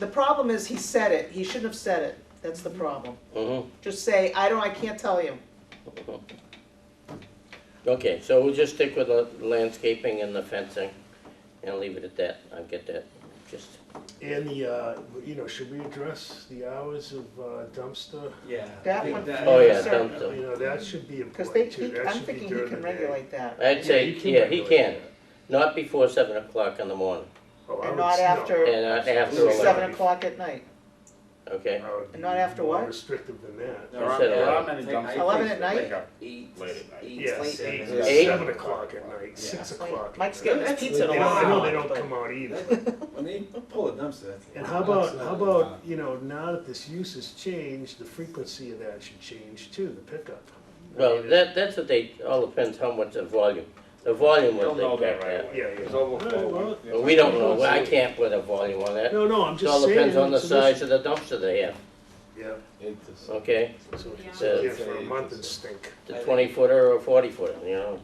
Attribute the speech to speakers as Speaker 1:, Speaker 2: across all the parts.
Speaker 1: The problem is he said it, he shouldn't have said it, that's the problem.
Speaker 2: Mhm.
Speaker 1: Just say, I don't, I can't tell you.
Speaker 2: Okay, so we'll just stick with the landscaping and the fencing and leave it at that. I get that. Just,
Speaker 3: And the, uh, you know, should we address the hours of uh, dumpster?
Speaker 4: Yeah.
Speaker 1: That
Speaker 4: I think
Speaker 1: one-
Speaker 4: that-
Speaker 2: oh yeah,
Speaker 1: Yes, sir.
Speaker 3: You
Speaker 2: dumpster.
Speaker 3: know, that should be
Speaker 1: Cause they,
Speaker 3: important too,
Speaker 1: he,
Speaker 3: that
Speaker 1: I'm
Speaker 3: should be
Speaker 1: thinking he
Speaker 3: during
Speaker 1: can
Speaker 3: the day.
Speaker 1: regulate that.
Speaker 2: I'd say,
Speaker 3: you can
Speaker 2: yeah, he
Speaker 3: regulate
Speaker 2: can.
Speaker 3: that.
Speaker 2: Not before seven o'clock in the morning
Speaker 3: Oh, I
Speaker 1: And
Speaker 3: would-
Speaker 1: not
Speaker 3: no,
Speaker 1: after-
Speaker 2: and not after
Speaker 3: Absolutely.
Speaker 2: eleven,
Speaker 1: Seven o'clock at night.
Speaker 2: okay?
Speaker 3: I would
Speaker 1: And not
Speaker 3: be
Speaker 1: after
Speaker 3: more
Speaker 1: what?
Speaker 3: Restrictive than that.
Speaker 4: There aren't-
Speaker 2: Instead of
Speaker 4: there
Speaker 2: eleven.
Speaker 4: aren't many
Speaker 5: Take-
Speaker 4: dumpsters.
Speaker 1: Eleven at night?
Speaker 5: Like a
Speaker 4: Eight,
Speaker 5: Late at night.
Speaker 4: eight,
Speaker 3: Yes,
Speaker 4: late at
Speaker 3: eight,
Speaker 4: night.
Speaker 2: Eight?
Speaker 3: seven o'clock at night, six
Speaker 1: Yeah.
Speaker 3: o'clock. at
Speaker 1: Mike's
Speaker 3: night.
Speaker 1: getting his
Speaker 4: That's-
Speaker 1: pizza in a
Speaker 3: They don't-
Speaker 1: while.
Speaker 3: I know they don't come out either.
Speaker 4: When they pull a dumpster, that's.
Speaker 3: And how about, how about, you know, now that this use has changed, the frequency of that should change too, the pickup. I
Speaker 2: Well,
Speaker 3: mean,
Speaker 2: that, that's what they, all depends how much the volume. The volume
Speaker 5: They'll
Speaker 2: was
Speaker 5: know
Speaker 2: they
Speaker 5: that
Speaker 2: kept
Speaker 5: right
Speaker 2: at.
Speaker 5: away.
Speaker 3: Yeah, yeah.
Speaker 5: It's
Speaker 3: All right, well,
Speaker 5: overflowing.
Speaker 2: But we don't know. I can't put a volume on that. It
Speaker 3: No, no, I'm just saying.
Speaker 2: all depends on the
Speaker 3: so this-
Speaker 2: size of the dumpster they have,
Speaker 3: Yeah,
Speaker 2: okay?
Speaker 3: so if you
Speaker 2: Yeah.
Speaker 3: sit here for a month and stink.
Speaker 2: The twenty footer or forty footer, you know?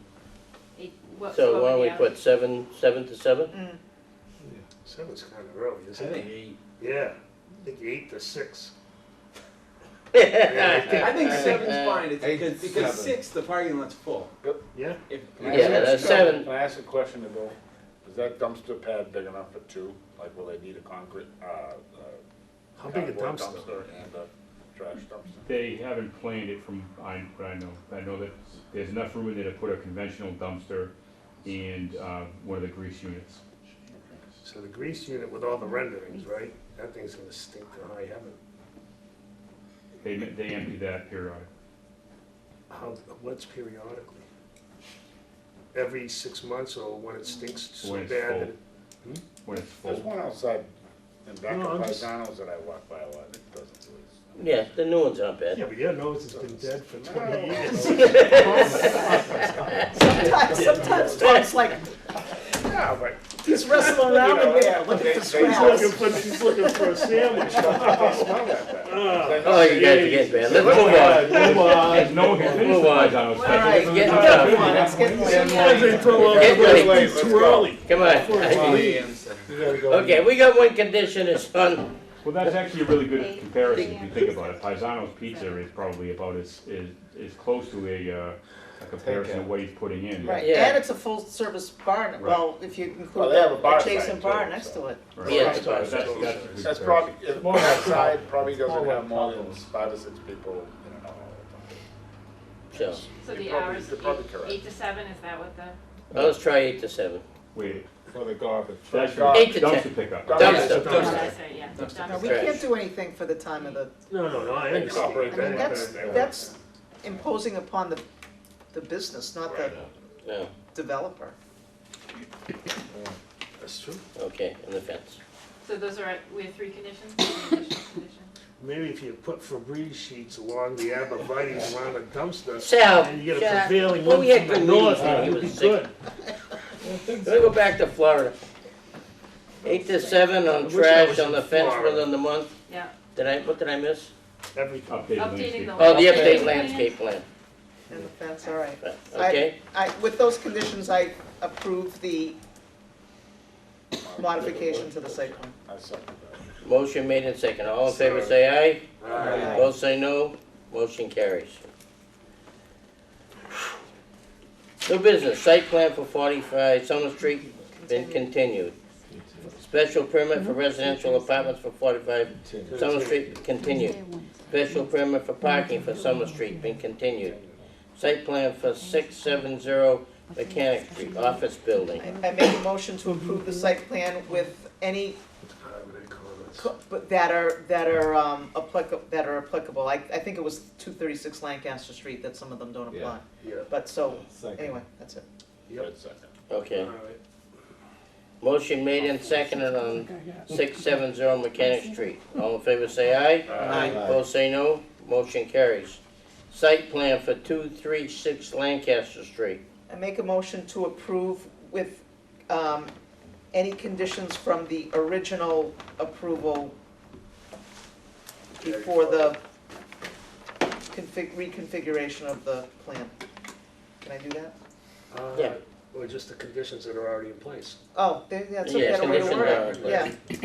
Speaker 6: It- what-
Speaker 2: So why
Speaker 6: what were
Speaker 2: don't we
Speaker 6: the
Speaker 2: put seven, seven to seven?
Speaker 1: Mm.
Speaker 3: Seven's kind of early,
Speaker 4: I
Speaker 3: isn't it?
Speaker 4: think eight.
Speaker 3: Yeah, I think eight to six.
Speaker 4: I
Speaker 3: Yeah,
Speaker 4: think
Speaker 5: Uh,
Speaker 4: seven's fine, it's
Speaker 5: eight,
Speaker 4: because, because
Speaker 5: seven.
Speaker 4: six, the parking lot's full.
Speaker 3: yeah,
Speaker 4: If,
Speaker 5: Can I
Speaker 2: Yeah,
Speaker 5: ask-
Speaker 2: that's seven.
Speaker 5: Can I ask a question to go? Is that dumpster pad big enough for two? Like, will they need a concrete, uh, uh,
Speaker 3: how big a
Speaker 5: cardboard
Speaker 3: dumpster?
Speaker 5: And a trash dumpster?
Speaker 7: They haven't planned it from, I, what I know, I know that there's enough room in there to put a conventional dumpster and, uh, one of the grease units.
Speaker 3: So the grease unit with all the renderings, right? That thing's gonna stink to high heaven.
Speaker 7: They, they empty that period.
Speaker 3: How, what's periodically? Every six months or when it stinks so
Speaker 7: When it's
Speaker 3: bad that
Speaker 7: full.
Speaker 3: it-
Speaker 7: when it's
Speaker 5: There's
Speaker 7: full.
Speaker 5: one outside in back
Speaker 3: No,
Speaker 5: of
Speaker 3: I'm just-
Speaker 5: Paisanos that I walk by a lot, it doesn't really.
Speaker 2: Yeah, the new ones aren't bad.
Speaker 3: Yeah, but yeah, no, it's been dead for twenty years.
Speaker 1: Sometimes, sometimes Tom's like,
Speaker 5: Yeah, but
Speaker 1: he's wrestling around in there, look at the
Speaker 5: They- they-
Speaker 3: He's
Speaker 1: scraps.
Speaker 3: looking for, he's looking for a sandwich.
Speaker 5: they smell that bad.
Speaker 2: Oh, you guys are getting bad. Let's move
Speaker 3: Come on.
Speaker 2: on.
Speaker 7: No one can finish the Paisanos.
Speaker 1: All right,
Speaker 2: Get
Speaker 1: get
Speaker 2: up.
Speaker 1: come on, it's getting
Speaker 3: Why
Speaker 1: late.
Speaker 3: they throw out
Speaker 2: Get
Speaker 3: the
Speaker 2: ready.
Speaker 3: rest
Speaker 5: Let's
Speaker 3: too
Speaker 5: go.
Speaker 3: early?
Speaker 2: Come on.
Speaker 4: Well, yeah, and seven.
Speaker 2: Okay, we got one condition, it's on,
Speaker 7: Well, that's actually a really good comparison if you think about it. Paisano's Pizza is probably about as, is, is close to a, uh, a comparison of what he's putting in.
Speaker 1: Right,
Speaker 2: Yeah.
Speaker 1: and it's a full-service barn, well, if you
Speaker 5: Well,
Speaker 1: include
Speaker 5: they have a bar
Speaker 1: that adjacent
Speaker 5: side,
Speaker 1: bar
Speaker 5: too,
Speaker 1: next
Speaker 5: so.
Speaker 1: to it.
Speaker 7: Right.
Speaker 2: Yeah, it's
Speaker 7: So
Speaker 2: about-
Speaker 7: that's- that's a good
Speaker 5: That's
Speaker 7: comparison.
Speaker 5: probably, it's more outside, probably doesn't have more than five or six people in and out all
Speaker 2: so,
Speaker 6: hours? So the
Speaker 5: You're probably-
Speaker 6: hours,
Speaker 5: you're probably
Speaker 6: eight,
Speaker 5: correct.
Speaker 6: eight to seven, is that what the?
Speaker 2: let's try eight to seven.
Speaker 7: Wait,
Speaker 5: For the garbage.
Speaker 7: that's your
Speaker 2: Eight to
Speaker 7: dumpster
Speaker 2: ten.
Speaker 7: pickup.
Speaker 2: Dumpster.
Speaker 5: Dumpster.
Speaker 6: Oh, that's right, yeah.
Speaker 1: No, we
Speaker 6: Dumpster.
Speaker 1: can't do anything for the time of the,
Speaker 3: No, no, no, I
Speaker 5: They cooperate
Speaker 3: understand.
Speaker 1: I mean,
Speaker 5: Right.
Speaker 1: that's,
Speaker 5: They were-
Speaker 1: that's imposing upon the, the business, not the
Speaker 2: No,
Speaker 1: developer.
Speaker 3: That's true.
Speaker 2: okay, and the fence.
Speaker 6: So those are, we have three conditions, conditions, conditions.
Speaker 3: Maybe if you put Febreze sheets along the abrevieties around the dumpster,
Speaker 2: Sal,
Speaker 3: and you get a
Speaker 2: shut up.
Speaker 3: prevailing
Speaker 2: Well,
Speaker 3: wind
Speaker 2: we had
Speaker 3: from the
Speaker 2: good
Speaker 3: north,
Speaker 2: meetings
Speaker 3: it
Speaker 2: when he
Speaker 3: would be
Speaker 2: was sick.
Speaker 3: good.
Speaker 2: Let's go back to Florida. Eight to seven on
Speaker 3: wish I
Speaker 2: trash
Speaker 3: was
Speaker 2: on
Speaker 3: in
Speaker 2: the fence
Speaker 3: Florida.
Speaker 2: within the month.
Speaker 6: Yeah,
Speaker 2: Did I, what did I miss?
Speaker 3: Everything.
Speaker 7: Updated
Speaker 6: updating
Speaker 7: landscape.
Speaker 6: the.
Speaker 2: Oh, the
Speaker 6: landscape
Speaker 2: update
Speaker 6: plan.
Speaker 2: landscape plan,
Speaker 1: And the fence, all right.
Speaker 2: okay?
Speaker 1: I, with those conditions, I approve the modification to the site plan.
Speaker 5: I second that.
Speaker 2: Motion made and second. All in favor, say aye.
Speaker 1: Aye.
Speaker 2: Both say no, motion carries. New business, site plan for forty-five Summer Street been continued. Special permit for residential apartments for forty-five Summer Street continued. Special permit for parking for Summer Street been continued. Site plan for six seven zero Mechanic Street, office building.
Speaker 1: I make a motion to approve the site plan with any, co- but that are, that are um, applica- that are applicable. I, I think it was two thirty-six Lancaster Street that some of them don't apply.
Speaker 3: Yeah,
Speaker 1: But so, anyway, that's it.
Speaker 3: yep,
Speaker 5: Good second.
Speaker 3: all
Speaker 2: Okay.
Speaker 3: right.
Speaker 2: Motion made and seconded on six seven zero Mechanic Street. All in favor say aye.
Speaker 1: Aye.
Speaker 2: Both say no, motion carries. Site plan for two three six Lancaster Street.
Speaker 1: I make a motion to approve with um, any conditions from the original approval before the config, reconfiguration of the plan. Can I do that?
Speaker 3: Uh,
Speaker 2: Yeah.
Speaker 3: Or just the conditions that are already in place.
Speaker 1: Oh, there- that's okay,
Speaker 2: Yeah,
Speaker 1: I don't wanna
Speaker 2: conditions
Speaker 1: word it.
Speaker 2: are in place.
Speaker 1: Yeah.